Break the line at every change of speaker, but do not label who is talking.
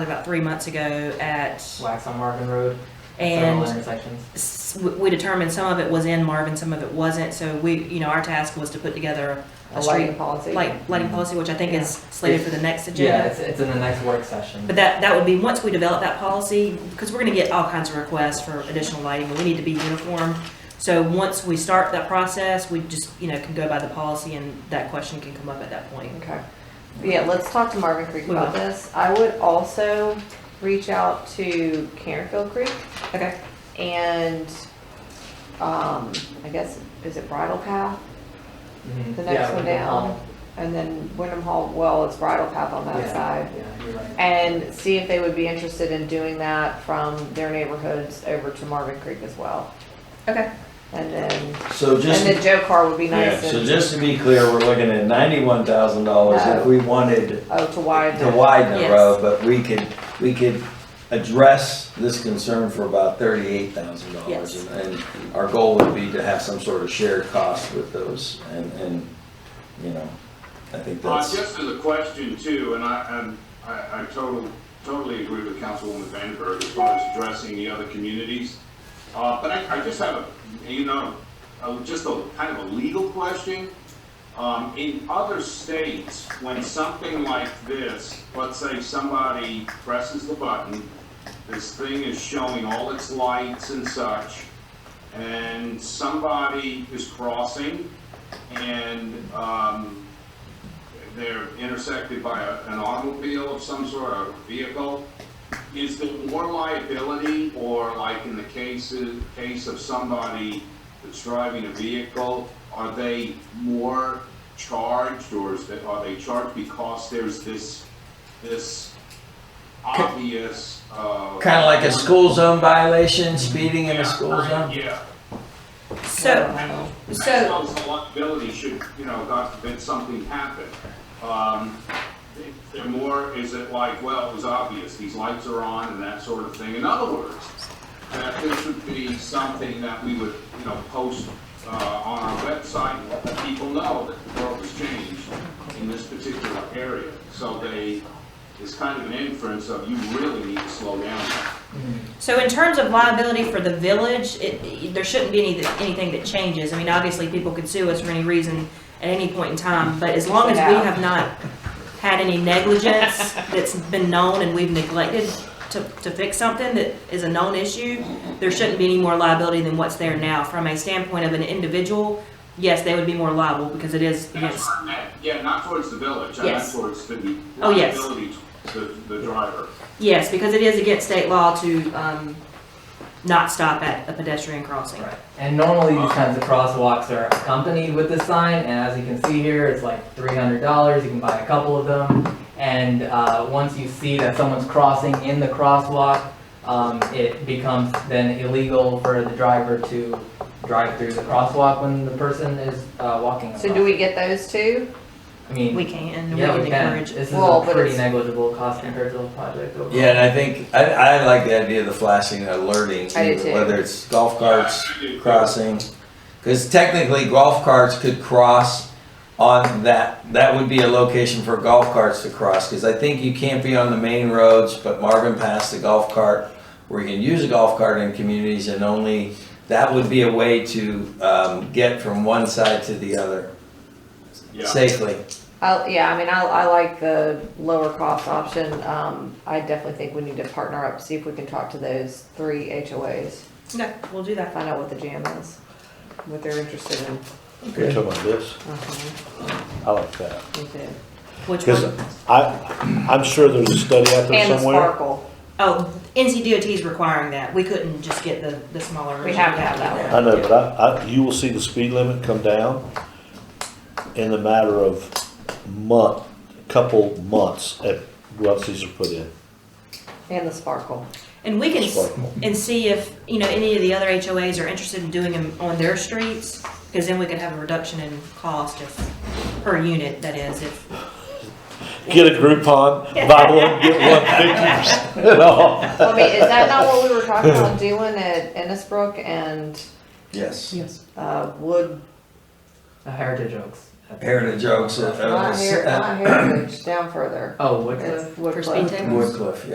about three months ago at,
Wax on Marvin Road, several
and
intersections.
s- we- we determined some of it was in Marvin, some of it wasn't, so we, you know, our task was to put together a
A
street,
lighting policy.
like, lighting policy, which I think is slated for the next
Yeah,
agenda.
it's, it's in the next work session.
But that, that would be, once we develop that policy, because we're gonna get all kinds of requests for additional lighting, and we need to be uniform. So once we start that process, we just, you know, can go by the policy, and that question can come up at that point.
Okay. Yeah, let's talk to Marvin Creek
We
about
will.
this. I would also reach out to Carenfield Creek
Okay.
and, um, I guess, is it Bridle Path?
Mhm.
The
Yeah,
next one
Lincoln Hall.
down? And then Wyndham Hall, well, it's Bridle Path on that
Yeah,
side.
Yeah, you're right.
And see if they would be interested in doing that from their neighborhoods over to Marvin Creek as well.
Okay.
And then,
So
and
just,
then Joe Car would be
yeah,
nice
so
and,
just to be clear, we're looking at ninety-one thousand dollars if we wanted
oh, to widen.
to widen the
Yes.
road, but we could, we could address this concern for about thirty-eight thousand
Yes.
dollars. And our goal would be to have some sort of shared cost with those and, and, you know, I think
Uh,
that's,
just as a question too, and I, and I, I totally, totally agree with Councilwoman Vandenberg as far as addressing the other communities. Uh, but I, I just have, a, you know, a- just a, kind of a legal question. Um, in other states, when something like this, let's say somebody presses the button, this thing is showing all its lights and such, and somebody is crossing, and, um, they're intersected by a- an automobile of some sort, a vehicle, is there more liability, or like in the cases, case of somebody that's driving a vehicle, are they more charged, or is they, are they charged because there's this, this obvious, uh.
kinda like a school zone violation, speeding in
Yeah,
a school
right,
zone.
Uh, Yeah.
So,
I
so,
suppose the liability should, you know, God forbid something happened. Um, they're more, is it like, well, it was obvious, these lights are on and that sort of thing. In other words, that this would be something that we would, you know, post, uh, on our website, and let the people know that the world has changed in this particular area. So they, it's kind of an inference of you really need to slow down.
so in terms of liability for the village, it, it- there shouldn't be any, anything that changes. I mean, obviously, people could sue us for any reason at any point in time, but as long as we
Yeah.
have not had any negligence that's been known and we've neglected to, to fix something that is a known issue, there shouldn't be any more liability than what's there now. From a standpoint of an individual, yes, they would be more liable because it is,
That's
yes.
what I meant. Yeah, not towards the village, I meant
Yes.
towards the
Oh, yes.
liability, to the, the driver.
Yes, because it is against state law to, um, not stop at a pedestrian crossing.
Right. And normally these kinds of crosswalks are accompanied with this sign, and as you can see here, it's like three hundred dollars, you can buy a couple of them. And, uh, once you see that someone's crossing in the crosswalk, um, it becomes then illegal for the driver to drive through the crosswalk when the person is, uh, walking across.
So do we get those two?
I mean,
We can, and we
yeah,
would
we can,
encourage.
this is
Well,
a
but
pretty
it's-
negligible cost compared to the project overall.
Yeah, and I think, I, I like the idea of the flashing and alerting,
I do
too,
too.
whether it's golf carts,
Yeah, I do.
crossing. Because technically golf carts could cross on that, that would be a location for golf carts to cross. Because I think you can't be on the main roads, but Marvin passed the golf cart, where you can use a golf cart in communities and only, that would be a way to um, get from one side to the other
Yeah.
safely.
I, yeah, I mean, I, I like the lower cost option. Um, I definitely think we need to partner up, see if we can talk to those three HOAs,
Okay, we'll do that.
find out what the jam is, what they're interested in.
You're talking about this?
Uh-huh,
I like that.
me too.
Which
Because
one?
I, I'm sure there's a study out there
And the
somewhere.
sparkle.
Oh, NCDOT is requiring that. We couldn't just get the, the smaller.
We
version.
have to have that one.
I know, but I, I, you will see the speed limit come down in the matter of month, couple months at once these are put in.
And the sparkle.
And we can, s-
Sparkle.
and see if, you know, any of the other HOAs are interested in doing them on their streets, because then we could have a reduction in cost if, per unit, that is, if,
Get a Groupon, buy one, get one fifty percent off.
Well, I mean, is that not what we were talking about doing at Ennisbrook and,
Yes.
Yes.
uh, Wood,
The Heritage Oaks.
Heritage Oaks. uh,
not Her-
uh,
not Heritage, down further?
Oh, what's
It's
this?
Wood
for
Club.
speed tables.
Woodcliff,